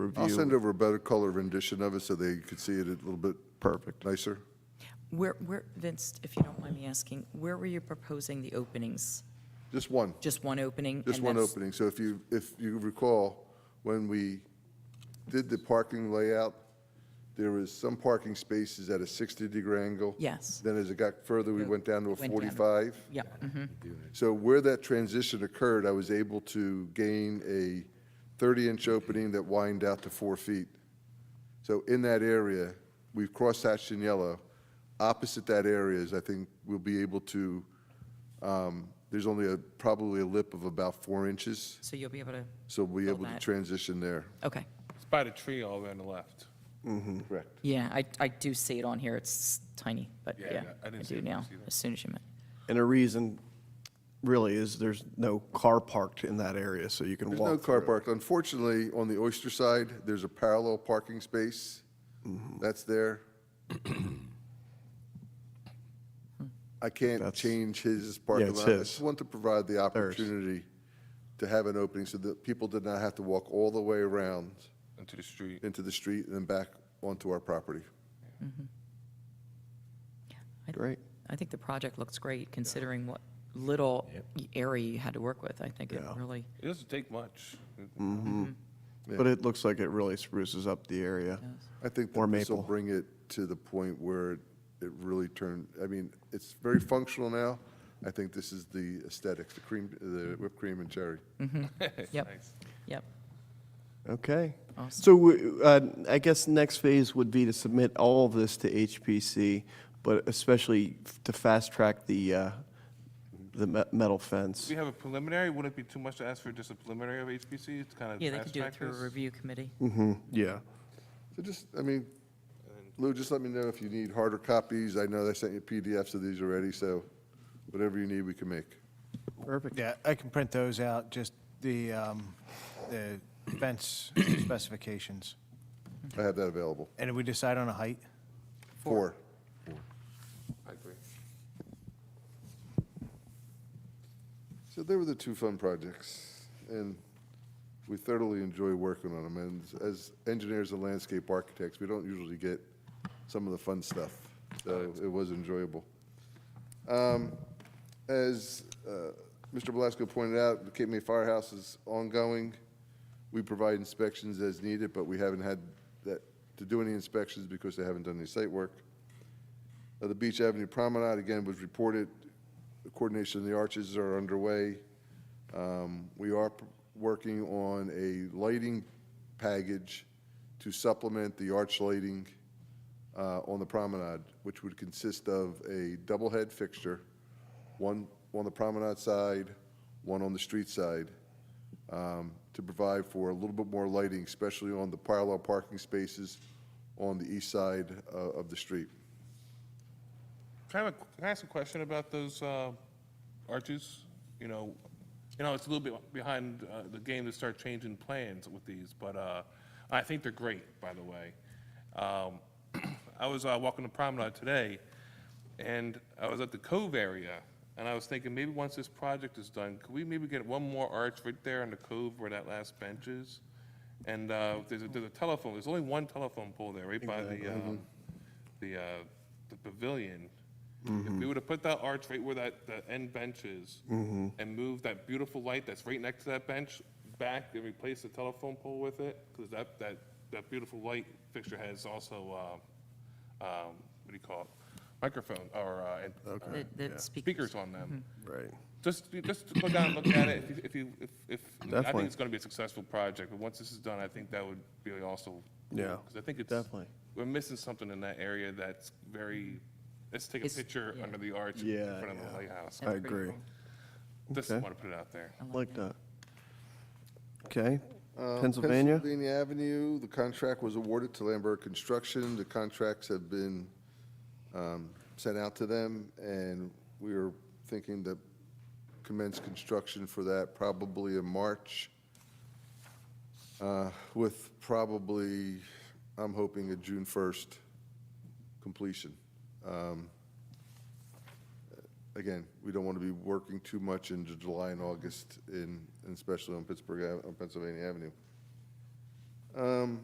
review. I'll send over a better color rendition of it so they could see it a little bit Perfect. nicer. Where, where, Vince, if you don't mind me asking, where were you proposing the openings? Just one, Just one opening? just and one that's- opening. So if you, if you recall, when we did the parking layout, there was some parking spaces at a 60-degree angle. Yes. Then as it got further, we went down to a Went down. 45. Yeah, mhm. So where that transition occurred, I was able to gain a 30-inch opening that widened out to four feet. So in that area, we've cross-hatched in yellow. Opposite that area is, I think, we'll be able to, um, there's only a, probably a lip of about four inches, so you'll be able to, so we'll be Fill able to that. transition there. okay. It's by the tree all the way on the left. Correct. Yeah, I, I do see it on here, it's tiny, but Yeah, yeah, I I didn't see do it, I now, see that. as soon as you meant. And a reason really is there's no car parked in that area, so you can There's no walk car through. parked. Unfortunately, on the Oyster side, there's a parallel parking space. Mm-hmm. That's there. I can't That's- change his parking it's lot. I his. just want to provide the opportunity to have an opening so that people did not have to walk all the way around Into the street. into the street and then back onto our property. I- Great. I think the project looks great, considering what little area you had to work with. I think it Yeah. really, It doesn't take much. But it looks like it really spruces up the area. I think Or that this will maple. bring it to the point where it really turned, I mean, it's very functional now. I think this is the aesthetics, the cream, the whipped cream and cherry. yep, yep. Okay. Awesome. So w- uh, I guess next phase would be to submit all of this to HPC, but especially f- to fast track the, uh, the me- metal fence. We have a preliminary, wouldn't it be too much to ask for just a preliminary of HPC? It's kind of Yeah, they could fast do it track through a this? review committee. Mm-hmm. Yeah. So just, I mean, Lou, just let me know if you need harder copies. I know they sent you PDFs of these already, so whatever you need, we can make. Perfect. Yeah, I can print those out, just the, um, the fence specifications. I have that available. And did we decide on a height? Four. I agree. So they were the two fun projects, and we thoroughly enjoy working on them. And as engineers and landscape architects, we don't usually get some of the fun stuff, so it was enjoyable. Um, As uh, Mr. Belasco pointed out, the Cape May Firehouse is ongoing. We provide inspections as needed, but we haven't had that, to do any inspections because they haven't done any site work. Uh, The Beach Avenue Promenade, again, was reported. The Coordination of the arches are underway. Um, We are p- working on a lighting package to supplement the arch lighting uh, on the promenade, which would consist of a double head fixture, one on the promenade side, one on the street side, um, to provide for a little bit more lighting, especially on the parallel parking spaces on the east side uh, of the street. Can I, have a- can I ask a question about those uh, arches? You know, you know, it's a little bit behind uh, the game to start changing plans with these, but uh, I think they're great, by the way. Um, I was uh, walking the promenade today, and I was at the Cove area, and I was thinking, maybe once this project is done, could we maybe get one more arch right there on the Cove where that last bench is? And uh, there's a, there's a telephone, there's only one telephone pole there, right by the, uh, the, uh, the pavilion. If Mm-hmm. we were to put that arch right where that, the end bench is, and move that beautiful light that's right next to that bench back and replace the telephone pole with it, because that, that, that beautiful light fixture has also, um, um, what do you call it? Microphone, or, uh, and- or That- That speakers, speakers on them. Right. Just, just go down and look at it, if you, if, you- if, if- I Definitely. think it's gonna be a successful project, but once this is done, I think that would be also. Yeah, Because I think it's. definitely. We're missing something in that area that's very, let's take a It's- picture yeah. under the arch in Yeah, front of the yeah. lighthouse. I pretty agree. cool. Just okay. wanna put it out there. Like that. Okay. Uh, Pennsylvania? Pennsylvania Avenue, the contract was awarded to Lambert Construction. The contracts have been um, sent out to them, and we are thinking to commence construction for that probably in March, uh, with probably, I'm hoping a June 1st completion. Um, Again, we don't want to be working too much into July and August, in, and especially on Pittsburgh, Ave- on Pennsylvania Avenue. Um,